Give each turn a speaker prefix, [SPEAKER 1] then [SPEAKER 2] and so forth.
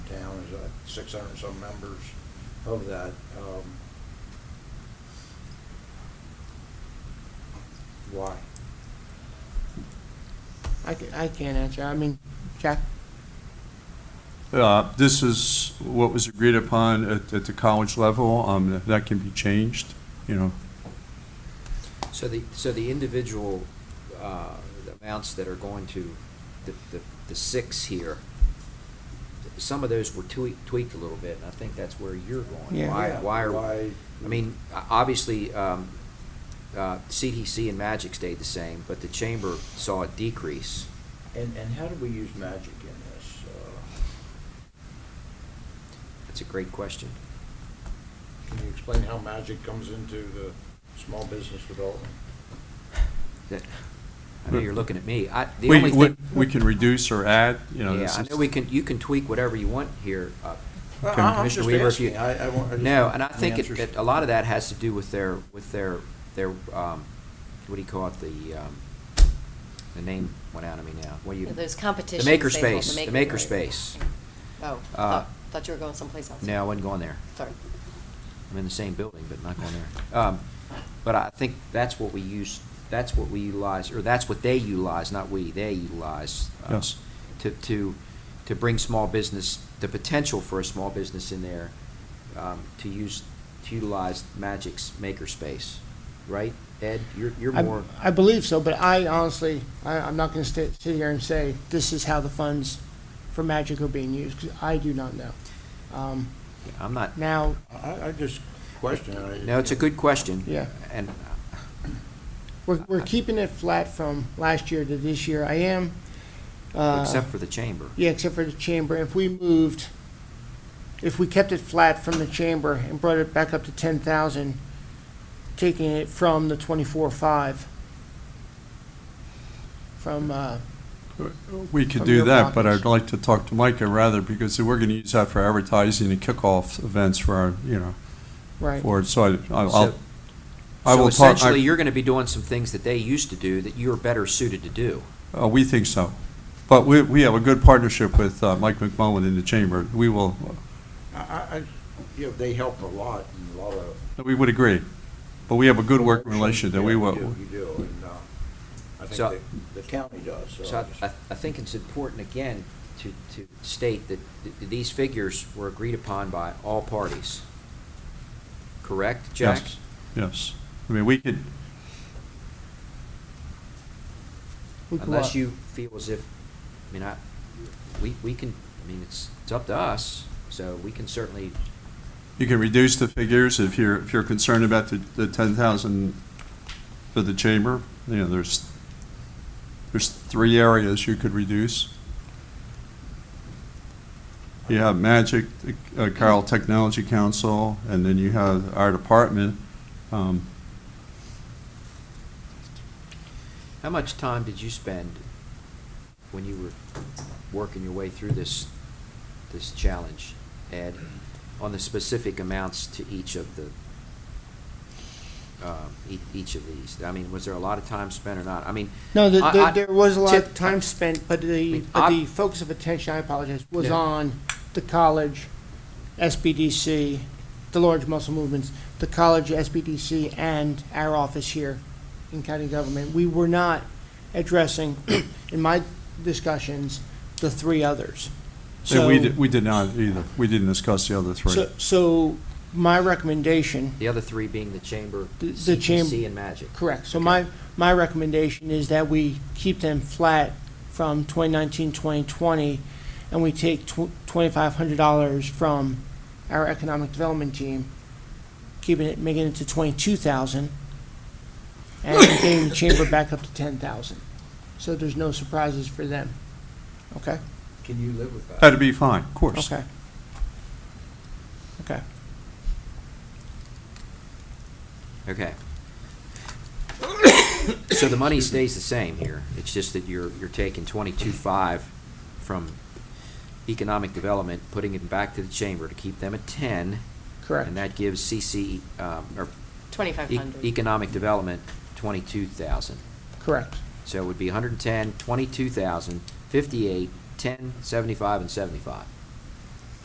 [SPEAKER 1] uh, six hundred and some members of that. Um, Why?
[SPEAKER 2] I ca- I can't answer. I mean, Jack,
[SPEAKER 3] Uh, This is what was agreed upon at, at the college level. Um, That can be changed, you know.
[SPEAKER 4] So the, so the individual uh, amounts that are going to, the, the- the six here, some of those were tweaked, tweaked a little bit, and I think that's where you're going.
[SPEAKER 2] Yeah.
[SPEAKER 4] Why,
[SPEAKER 1] Yeah,
[SPEAKER 4] why, are-
[SPEAKER 1] why-
[SPEAKER 4] I mean, o- obviously, um, uh, CDC and Magic stayed the same, but the chamber saw a decrease.
[SPEAKER 1] And, and how do we use magic in this? Uh,
[SPEAKER 4] That's a great question.
[SPEAKER 1] Can you explain how magic comes into the small business development?
[SPEAKER 4] That, I know you're looking at me. I, the
[SPEAKER 3] We,
[SPEAKER 4] only
[SPEAKER 3] we
[SPEAKER 4] thing.
[SPEAKER 3] we can reduce or add, you know.
[SPEAKER 4] Yeah,
[SPEAKER 3] this
[SPEAKER 4] I
[SPEAKER 3] is-
[SPEAKER 4] know we can, you can tweak whatever you want here. uh,
[SPEAKER 1] Well,
[SPEAKER 3] I'm
[SPEAKER 4] Commissioner
[SPEAKER 1] just
[SPEAKER 4] Weaver, if you-
[SPEAKER 1] asking. I- I want- I just
[SPEAKER 4] No,
[SPEAKER 1] want
[SPEAKER 4] and I
[SPEAKER 1] the
[SPEAKER 4] think it-
[SPEAKER 1] answers.
[SPEAKER 4] it, a lot of that has to do with their, with their, their, um, what do you call it, the, um, the name went out of me now. What do you?
[SPEAKER 5] Those competitions.
[SPEAKER 4] The
[SPEAKER 5] they hold,
[SPEAKER 4] makerspace, the makerspace.
[SPEAKER 5] Oh,
[SPEAKER 4] Uh,
[SPEAKER 5] thought, thought you were going someplace else.
[SPEAKER 4] No, I wasn't going there.
[SPEAKER 5] Sorry.
[SPEAKER 4] I'm in the same building, but not going there. Um, But I think that's what we use, that's what we utilize, or that's what they utilize, not we, they utilize. uh,
[SPEAKER 3] Yes.
[SPEAKER 4] To, to, to bring small business, the potential for a small business in there, um, to use, to utilize Magic's makerspace, right? Ed, you're, you're
[SPEAKER 2] I
[SPEAKER 4] more,
[SPEAKER 2] I believe so, but I honestly, I- I'm not going to sit here and say this is how the funds for Magic are being used, 'cause I do not know. Um,
[SPEAKER 4] I'm not,
[SPEAKER 2] Now,
[SPEAKER 1] I, I just question. I-
[SPEAKER 4] no, it's a good question.
[SPEAKER 2] Yeah.
[SPEAKER 4] And,
[SPEAKER 2] we're we're keeping it flat from last year to this year. I am. uh,
[SPEAKER 4] except for the chamber.
[SPEAKER 2] Yeah, except for the chamber. If we moved, if we kept it flat from the chamber and brought it back up to ten thousand, taking it from the twenty-four five, from, uh,
[SPEAKER 3] We could
[SPEAKER 2] From
[SPEAKER 3] do
[SPEAKER 2] your
[SPEAKER 3] that, but
[SPEAKER 2] pockets.
[SPEAKER 3] I'd like to talk to Micah rather, because we're going to use that for advertising and kickoff events for our, you know,
[SPEAKER 2] right.
[SPEAKER 3] for, it. so I- I'll,
[SPEAKER 4] So-
[SPEAKER 3] I'll- I
[SPEAKER 4] So
[SPEAKER 3] will talk. I-
[SPEAKER 4] essentially, you're gonna be doing some things that they used to do that you're better suited to do.
[SPEAKER 3] Uh, we think so. But we, we have a good partnership with uh, Mike McMullen in the chamber. We will,
[SPEAKER 1] I, I, I- you know, they help a lot and a lot of.
[SPEAKER 3] we would agree. But we have a good working relationship that we
[SPEAKER 1] Yeah, you
[SPEAKER 3] will.
[SPEAKER 1] do, You do, and, uh, I
[SPEAKER 4] So-
[SPEAKER 1] think the, the county does, so.
[SPEAKER 4] So I, I- I think it's important, again, to, to state that th- these figures were agreed upon by all parties. Correct, Jack?
[SPEAKER 3] Yes, Yes. I mean, we could,
[SPEAKER 2] We could
[SPEAKER 4] Unless
[SPEAKER 2] up-
[SPEAKER 4] you feel as if, I mean, I, we, we can, I mean, it's, it's up to us, so we can certainly,
[SPEAKER 3] you can reduce the figures if you're, if you're concerned about the, the ten thousand for the chamber. You know, there's, there's three areas you could reduce. You have Magic, uh, Carroll Technology Council, and then you have our department. Um,
[SPEAKER 4] how much time did you spend when you were working your way through this, this challenge, Ed, on the specific amounts to each of the, um, ea- each of these? I mean, was there a lot of time spent or not? I mean.
[SPEAKER 2] No, the-
[SPEAKER 4] I-
[SPEAKER 2] the-
[SPEAKER 4] I-
[SPEAKER 2] there was a lot of
[SPEAKER 4] tip-
[SPEAKER 2] time spent, but the,
[SPEAKER 4] mean,
[SPEAKER 2] but
[SPEAKER 4] I-
[SPEAKER 2] the focus of attention, I apologize, was
[SPEAKER 4] Yeah.
[SPEAKER 2] on the college, SBDC, the large muscle movements, the college, SBDC, and our office here in county government. We were not addressing, in my discussions, the three others.
[SPEAKER 3] And we,
[SPEAKER 2] So-
[SPEAKER 3] di- we did not either. We didn't discuss the other three.
[SPEAKER 2] So, so my recommendation,
[SPEAKER 4] The other three being the chamber,
[SPEAKER 2] The- the cham-
[SPEAKER 4] CPC, and Magic.
[SPEAKER 2] correct, so
[SPEAKER 4] Okay.
[SPEAKER 2] my, my recommendation is that we keep them flat from 2019, 2020, and we take tw- $2,500 from our economic development team, keeping it, making it to 22,000, and getting the chamber back up to 10,000. So there's no surprises for them. Okay?
[SPEAKER 1] Can you live with that?
[SPEAKER 3] That'd be fine, of course.
[SPEAKER 2] Okay. Okay.
[SPEAKER 4] Okay. So the money stays the same here. It's just that you're, you're taking twenty-two-five from economic development, putting it back to the chamber to keep them at ten.
[SPEAKER 2] Correct.
[SPEAKER 4] And that gives CC, um, or
[SPEAKER 5] Twenty-five
[SPEAKER 4] e-
[SPEAKER 5] hundred.
[SPEAKER 4] economic development, twenty-two thousand.
[SPEAKER 2] Correct.
[SPEAKER 4] So it would be 110, 22,000, 58, 10, 75, and 75.